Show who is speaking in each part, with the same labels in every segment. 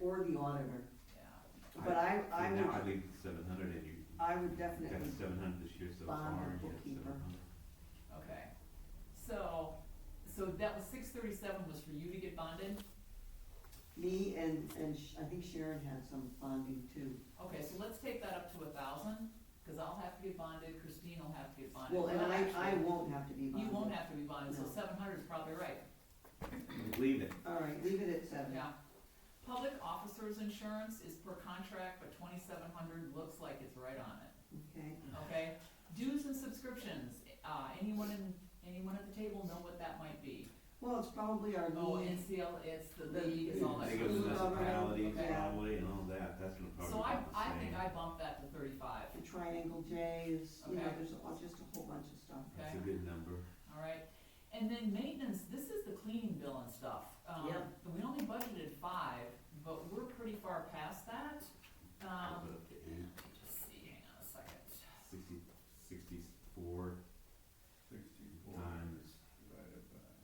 Speaker 1: or the auditor.
Speaker 2: yeah.
Speaker 1: But I, I
Speaker 3: Now I
Speaker 1: would,
Speaker 3: leave seven hundred and you.
Speaker 1: I would
Speaker 3: Got
Speaker 1: definitely,
Speaker 3: seven hundred this year so
Speaker 1: bond
Speaker 3: far,
Speaker 1: the
Speaker 3: you
Speaker 1: bookkeeper.
Speaker 3: seven hundred.
Speaker 2: Okay, so, so that was six thirty-seven was for you to get bonded?
Speaker 1: me and, and Sh- I think Sharon had some bonding too.
Speaker 2: Okay, so let's take that up to a thousand, cause I'll have to get bonded, Christine will have to get bonded.
Speaker 1: Well, and I, I
Speaker 2: actually,
Speaker 1: won't have to be bonded.
Speaker 2: You won't have to be bonded, so
Speaker 1: No.
Speaker 2: seven hundred is probably right,
Speaker 3: Leave it.
Speaker 1: All right, leave it at seven.
Speaker 2: yeah. Public officers insurance is per contract, but twenty-seven hundred looks like it's right on it.
Speaker 1: Okay,
Speaker 2: okay? Dues and subscriptions, uh, anyone in, anyone at the table know what that might be?
Speaker 1: well, it's probably our
Speaker 2: Oh,
Speaker 1: lead.
Speaker 2: NCL, it's the
Speaker 1: The-
Speaker 2: league, it's all that.
Speaker 1: League
Speaker 3: They go to
Speaker 1: School
Speaker 3: the
Speaker 1: government,
Speaker 3: municipalities,
Speaker 2: okay.
Speaker 3: highway and all that, that's gonna
Speaker 4: Oh,
Speaker 3: probably
Speaker 2: So I,
Speaker 3: about the
Speaker 2: I
Speaker 3: same.
Speaker 2: think I bumped that to thirty-five,
Speaker 1: The triangle J is, you know,
Speaker 2: Okay.
Speaker 1: there's a- just a whole bunch of stuff.
Speaker 3: That's
Speaker 2: Okay.
Speaker 3: a good number.
Speaker 2: all right? And then maintenance, this is the cleaning bill and stuff. Um,
Speaker 1: Yeah.
Speaker 2: We only budgeted five, but we're pretty far past that. Um,
Speaker 3: I'll put up to eight,
Speaker 2: let me just see, hang on a second.
Speaker 3: sixty, sixty-four
Speaker 4: Sixty-four
Speaker 3: times,
Speaker 4: divided by.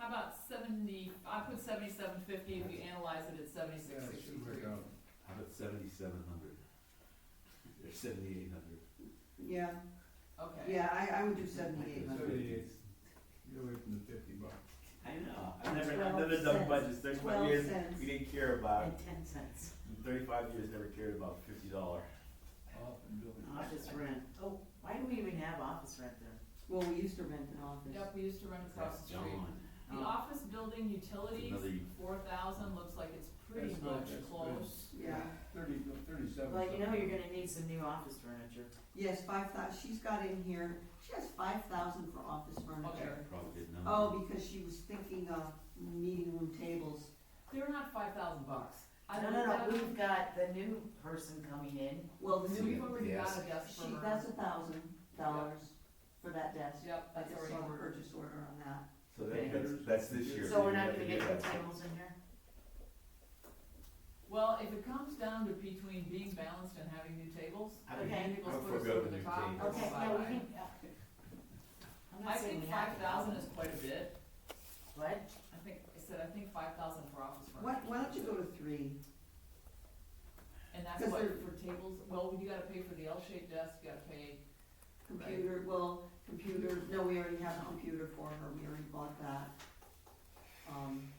Speaker 2: How about seventy, I put seventy-seven fifty, if you analyze it, it's seventy-six
Speaker 4: Yeah, it should
Speaker 2: sixty-three.
Speaker 4: work out.
Speaker 3: how about seventy-seven hundred? Or seventy-eight hundred?
Speaker 1: Yeah,
Speaker 2: Okay.
Speaker 1: yeah, I, I would do seventy-eight hundred.
Speaker 4: Seventy-eight, get away from the fifty bucks.
Speaker 3: I know, I've never,
Speaker 1: Twelve
Speaker 3: I've never done
Speaker 1: cents.
Speaker 3: budgets, thirty-five
Speaker 1: Twelve
Speaker 3: years,
Speaker 1: cents.
Speaker 3: we didn't care about,
Speaker 5: And ten cents.
Speaker 3: in thirty-five years, never cared about fifty dollar.
Speaker 4: Off and building.
Speaker 5: Office rent. Oh, why do we even have office rent there?
Speaker 1: Well, we used to rent an office.
Speaker 2: Yep, we used to run across the street. The
Speaker 5: Oh.
Speaker 2: office building utilities,
Speaker 3: Another u-
Speaker 2: four thousand, looks like it's pretty
Speaker 4: That's not-
Speaker 2: much
Speaker 4: that's-
Speaker 2: close.
Speaker 1: Yeah,
Speaker 4: Thirty, thirty-seven.
Speaker 5: Well, you know, you're gonna need some new office furniture.
Speaker 1: yes, five thou, she's got in here, she has five thousand for office furniture.
Speaker 2: Okay.
Speaker 3: Probably good number.
Speaker 1: Oh, because she was thinking of meeting room tables.
Speaker 2: They're not five thousand bucks. I
Speaker 5: No,
Speaker 2: don't
Speaker 5: no, no,
Speaker 2: know,
Speaker 5: we've got the new person coming in.
Speaker 1: Well, the
Speaker 2: Oh, we've
Speaker 1: new,
Speaker 2: already got a desk
Speaker 1: she,
Speaker 2: for
Speaker 1: that's
Speaker 2: her.
Speaker 1: a thousand dollars for that desk.
Speaker 2: Yep,
Speaker 1: I
Speaker 2: that's
Speaker 1: just
Speaker 2: already
Speaker 1: saw the
Speaker 2: ordered.
Speaker 1: purchase order on that.
Speaker 3: So
Speaker 5: Okay.
Speaker 3: that, that's, that's this year.
Speaker 5: So we're
Speaker 3: you
Speaker 5: not
Speaker 3: have
Speaker 5: gonna
Speaker 3: to
Speaker 5: get
Speaker 3: do
Speaker 5: the
Speaker 3: that.
Speaker 5: tables in here?
Speaker 2: Well, if it comes down to between being balanced and having new tables,
Speaker 3: I
Speaker 2: the
Speaker 5: would-
Speaker 2: tables
Speaker 3: I would
Speaker 2: put us
Speaker 3: forego
Speaker 2: over
Speaker 3: the
Speaker 2: the
Speaker 3: new
Speaker 2: top.
Speaker 3: tables.
Speaker 2: we'll
Speaker 5: Okay,
Speaker 2: buy
Speaker 5: yeah, we
Speaker 2: mine.
Speaker 5: can, yeah. I'm
Speaker 2: I
Speaker 5: not saying
Speaker 2: think
Speaker 5: we have.
Speaker 2: five
Speaker 5: to.
Speaker 2: thousand is quite a bit.
Speaker 5: What?
Speaker 2: I think, I said, I think five thousand for office furniture.
Speaker 1: Why, why don't you go to three?
Speaker 2: And that's
Speaker 1: Because
Speaker 2: what,
Speaker 1: they're-
Speaker 2: for tables, well, you gotta pay for the L-shaped desk, you gotta pay,
Speaker 1: Computer, well, computer, no, we already have a computer for her, we already bought that. Um.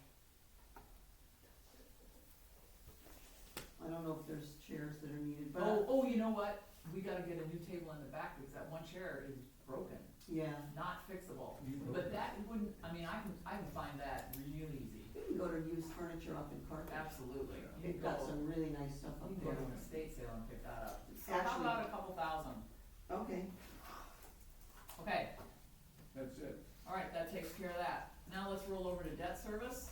Speaker 1: I don't know if there's chairs that are needed, but,
Speaker 2: oh, oh, you know what? We gotta get a new table in the back because that one chair is broken,
Speaker 1: yeah,
Speaker 2: not fixable. But that wouldn't, I mean, I can, I can find that real easy,
Speaker 1: we can go to used furniture up in Carthage.
Speaker 2: absolutely. You
Speaker 1: They've
Speaker 2: can
Speaker 1: got
Speaker 2: go-
Speaker 1: some really nice stuff up
Speaker 2: You can go
Speaker 1: there.
Speaker 2: to an estate sale and pick that up.
Speaker 1: It's
Speaker 2: So how
Speaker 1: actually-
Speaker 2: about a couple thousand?
Speaker 1: Okay,
Speaker 2: Okay,
Speaker 4: That's it.
Speaker 2: all right, that takes care of that. Now let's roll over to debt service.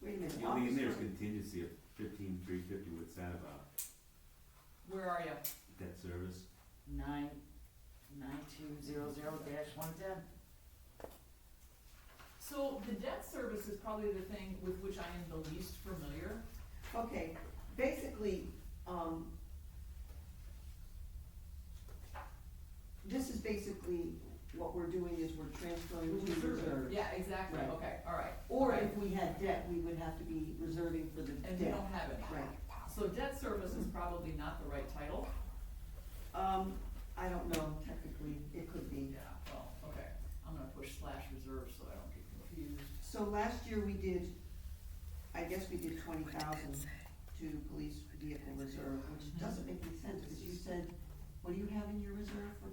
Speaker 1: wait a minute.
Speaker 3: You leave there's
Speaker 1: office-
Speaker 3: contingency of fifteen, three fifty, what's that about?
Speaker 2: Where are you?
Speaker 3: Debt service?
Speaker 5: Nine, nine two zero zero dash one ten.
Speaker 2: So the debt service is probably the thing with which I am the least familiar.
Speaker 1: Okay, basically, um, this is basically what we're doing is we're transferring to reserve.
Speaker 2: Yeah, exactly,
Speaker 1: Right.
Speaker 2: okay, all right.
Speaker 1: Or
Speaker 2: Okay.
Speaker 1: if we had debt, we would have to be reserving for the
Speaker 2: And we
Speaker 1: debt.
Speaker 2: don't have any.
Speaker 1: Right.
Speaker 2: So debt service is probably not the right title.
Speaker 1: Um, I don't know, technically, it could be.
Speaker 2: Yeah, well, okay, I'm gonna push slash reserve so I don't get confused.
Speaker 1: So last year we did, I guess we did twenty thousand to police vehicle reserve, which doesn't make any sense, because you said, what do you have in your reserve for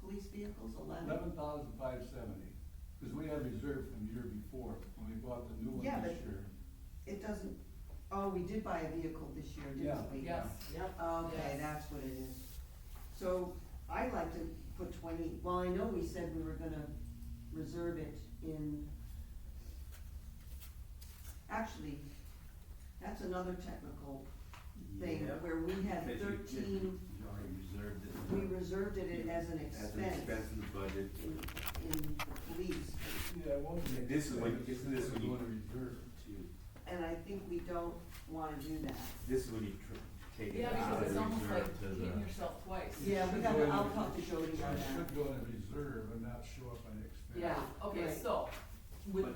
Speaker 1: police vehicles, eleven?
Speaker 4: Eleven thousand five seventy, because we had reserve from the year before, when we bought the new one
Speaker 1: Yeah,
Speaker 4: this
Speaker 1: but-
Speaker 4: year.
Speaker 1: It doesn't, oh, we did buy a vehicle this year, didn't
Speaker 4: Yeah.
Speaker 1: we?
Speaker 2: Yes,
Speaker 5: Yep.
Speaker 1: Okay,
Speaker 2: Yes.
Speaker 1: that's what it is. So I like to put twenty, well, I know we said we were gonna reserve it in. Actually, that's another technical thing
Speaker 3: Yep.
Speaker 1: where we had
Speaker 3: Because you-
Speaker 1: thirteen,
Speaker 3: You already reserved it.
Speaker 1: we reserved it as an
Speaker 3: As an
Speaker 1: expense
Speaker 3: expense in the budget.
Speaker 1: in, in the police.
Speaker 4: Yeah, it won't be.
Speaker 3: This is what-
Speaker 4: expensive,
Speaker 3: isn't this
Speaker 4: it's
Speaker 3: what you-
Speaker 4: going to reserve.
Speaker 3: to-
Speaker 1: And I think we don't wanna do that.
Speaker 3: This is when you tr- take it
Speaker 2: yeah,
Speaker 3: out
Speaker 2: because
Speaker 3: of
Speaker 2: it's
Speaker 3: the
Speaker 2: almost like
Speaker 3: reserve to
Speaker 2: hitting
Speaker 3: the.
Speaker 2: yourself twice.
Speaker 1: Yeah, we gotta, I'll talk to Jody on
Speaker 4: It
Speaker 1: that.
Speaker 4: should go in reserve and not show up on expense.
Speaker 2: Yeah, okay,
Speaker 1: Right.
Speaker 2: so with
Speaker 3: But-